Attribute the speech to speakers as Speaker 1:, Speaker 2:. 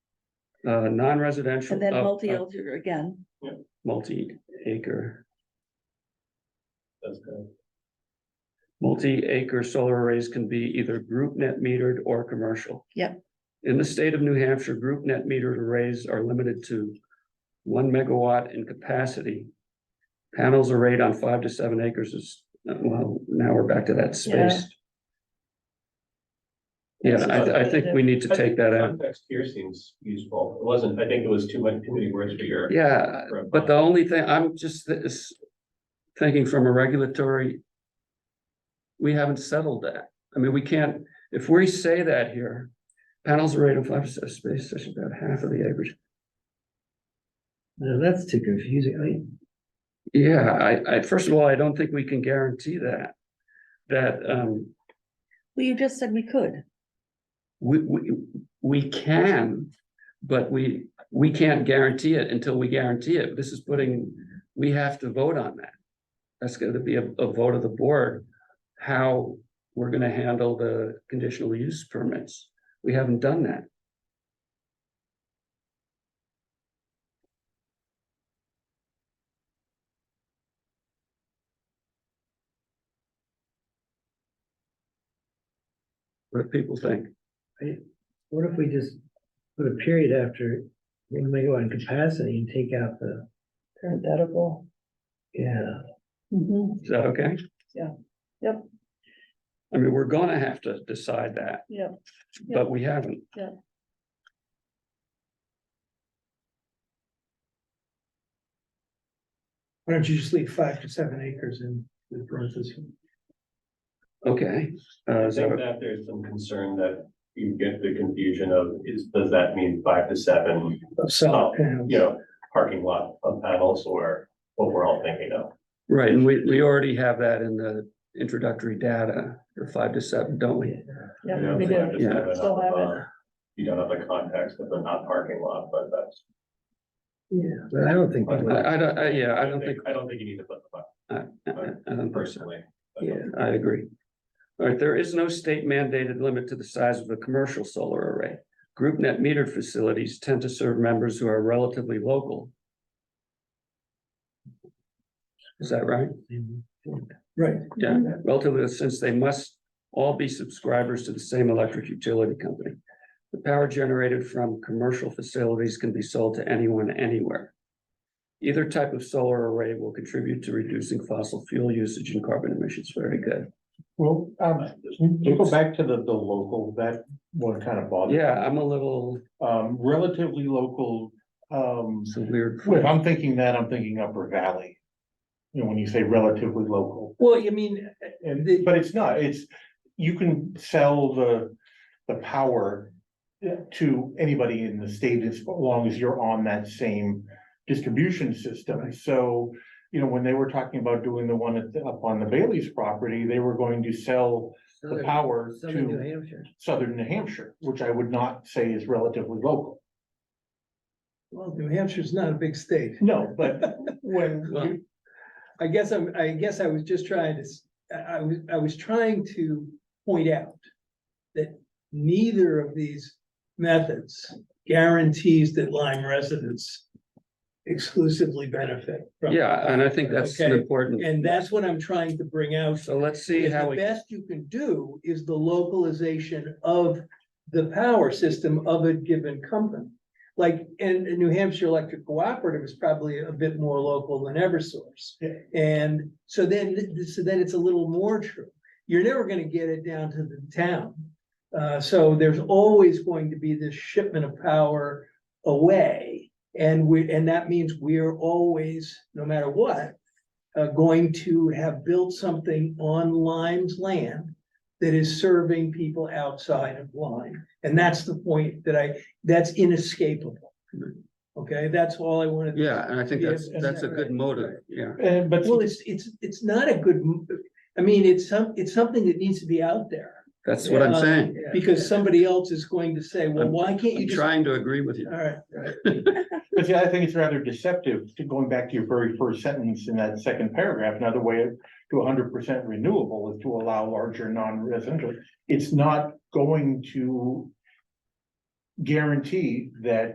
Speaker 1: uh, non-residential.
Speaker 2: and then
Speaker 1: up-
Speaker 2: multi
Speaker 1: up-
Speaker 2: elder again,
Speaker 1: Multi-acre,
Speaker 3: That's good.
Speaker 1: multi-acre solar arrays can be either group net metered or commercial.
Speaker 2: Yep.
Speaker 1: In the state of New Hampshire, group net metered arrays are limited to one megawatt in capacity. Panels arrayed on five to seven acres is, uh, well, now we're back to that space. Yeah, I, I think we need to take that out.
Speaker 3: Context here seems useful. It wasn't, I think it was too much, too many words for your.
Speaker 1: Yeah,
Speaker 3: for a-
Speaker 1: But the only thing, I'm just this, thinking from a regulatory. We haven't settled that. I mean, we can't, if we say that here, panels are rated on five percent space, that's about half of the acreage.
Speaker 4: No, that's too confusing. I mean,
Speaker 1: Yeah, I, I, first of all, I don't think we can guarantee that. That, um,
Speaker 2: well, you just said we could,
Speaker 1: we, we, we can, but we, we can't guarantee it until we guarantee it. This is putting, we have to vote on that. That's gonna be a, a vote of the board, how we're gonna handle the conditional use permits. We haven't done that. What do people think?
Speaker 4: what if we just put a period after one megawatt in capacity and take out the,
Speaker 2: parenthetical.
Speaker 4: yeah.
Speaker 2: Mhm.
Speaker 1: Is that okay?
Speaker 2: Yeah. Yep.
Speaker 1: I mean, we're gonna have to decide that,
Speaker 2: yeah,
Speaker 1: but we haven't.
Speaker 2: Yeah.
Speaker 4: Why don't you just leave five to seven acres in the parentheses?
Speaker 1: Okay, uh,
Speaker 3: I
Speaker 1: is that
Speaker 3: think
Speaker 1: okay?
Speaker 3: that there's some concern that you get the confusion of is, does that mean five to seven,
Speaker 4: Of solar panels.
Speaker 3: you know, parking lot of panels or what we're all thinking of?
Speaker 1: right, and we, we already have that in the introductory data, the five to seven, don't we?
Speaker 3: You
Speaker 2: yeah,
Speaker 3: know,
Speaker 2: we
Speaker 3: five
Speaker 2: do,
Speaker 3: to
Speaker 1: Yeah.
Speaker 3: seven
Speaker 2: Still
Speaker 3: of,
Speaker 2: have it.
Speaker 3: uh, You don't have the context of the not parking lot, but that's.
Speaker 4: Yeah, but I don't think. that would-
Speaker 1: I, I don't, I- yeah, I don't think,
Speaker 3: I don't think you need to put the, button,
Speaker 1: I- I- I don't think so.
Speaker 3: personally.
Speaker 4: Yeah.
Speaker 1: I agree. All right, there is no state mandated limit to the size of a commercial solar array. Group net metered facilities tend to serve members who are relatively local. Is that right?
Speaker 4: Right.
Speaker 1: Yeah, relatively, since they must all be subscribers to the same electric utility company. The power generated from commercial facilities can be sold to anyone, anywhere. Either type of solar array will contribute to reducing fossil fuel usage and carbon emissions. Very good.
Speaker 5: Well, um, can you go back to the, the local, that one kind of bothered.
Speaker 1: Yeah, I'm a little,
Speaker 5: Um, relatively local, um,
Speaker 1: it's a weird.
Speaker 5: if I'm thinking that, I'm thinking Upper Valley. You know, when you say relatively local,
Speaker 4: Well, you mean,
Speaker 5: and, but it's not, it's, you can sell the, the power. To anybody in the state as long as you're on that same distribution system, so. You know, when they were talking about doing the one at, the- up on the Bailey's property, they were going to sell the power
Speaker 4: Southern New
Speaker 5: to
Speaker 4: Hampshire.
Speaker 5: southern New Hampshire, which I would not say is relatively local.
Speaker 4: Well, New Hampshire's not a big state.
Speaker 5: No, but when,
Speaker 1: Well,
Speaker 4: I guess I'm, I guess I was just trying to, s- I, I was, I was trying to point out that neither of these methods guarantees that Lyme residents exclusively benefit. from.
Speaker 1: Yeah, and I think that's an
Speaker 4: Okay.
Speaker 1: important.
Speaker 4: And that's what I'm trying to bring out.
Speaker 1: So let's see
Speaker 4: is
Speaker 1: how
Speaker 4: The
Speaker 1: we,
Speaker 4: best you can do is the localization of the power system of a given company. Like, and and New Hampshire Electric Cooperative is probably a bit more local than Eversource.
Speaker 5: Yeah.
Speaker 4: And so then, th- so then it's a little more true. You're never gonna get it down to the town. Uh, so there's always going to be this shipment of power away. And we, and that means we're always, no matter what, uh, going to have built something on Lyme's land that is serving people outside of Lyme. And that's the point that I, that's inescapable. Okay, that's all I wanted. to
Speaker 1: yeah, and I think
Speaker 4: Yeah,
Speaker 1: that's,
Speaker 4: and-
Speaker 1: that's a good
Speaker 4: right,
Speaker 1: motive,
Speaker 4: right.
Speaker 1: yeah.
Speaker 5: and eh, but
Speaker 4: Well, it's, it's, it's not a good, m- I mean, it's some, it's something that needs to be out there.
Speaker 1: That's what I'm
Speaker 4: Uh,
Speaker 1: saying.
Speaker 4: Because somebody else is going to say, well,
Speaker 1: I'm-
Speaker 4: why can't you
Speaker 1: I'm
Speaker 4: just?
Speaker 1: trying to agree with you.
Speaker 4: All right,
Speaker 5: but see, I think it's rather deceptive to going back to your very first sentence in that second paragraph, another way to hundred percent renewable is to allow larger non-residential. It's not going to guarantee that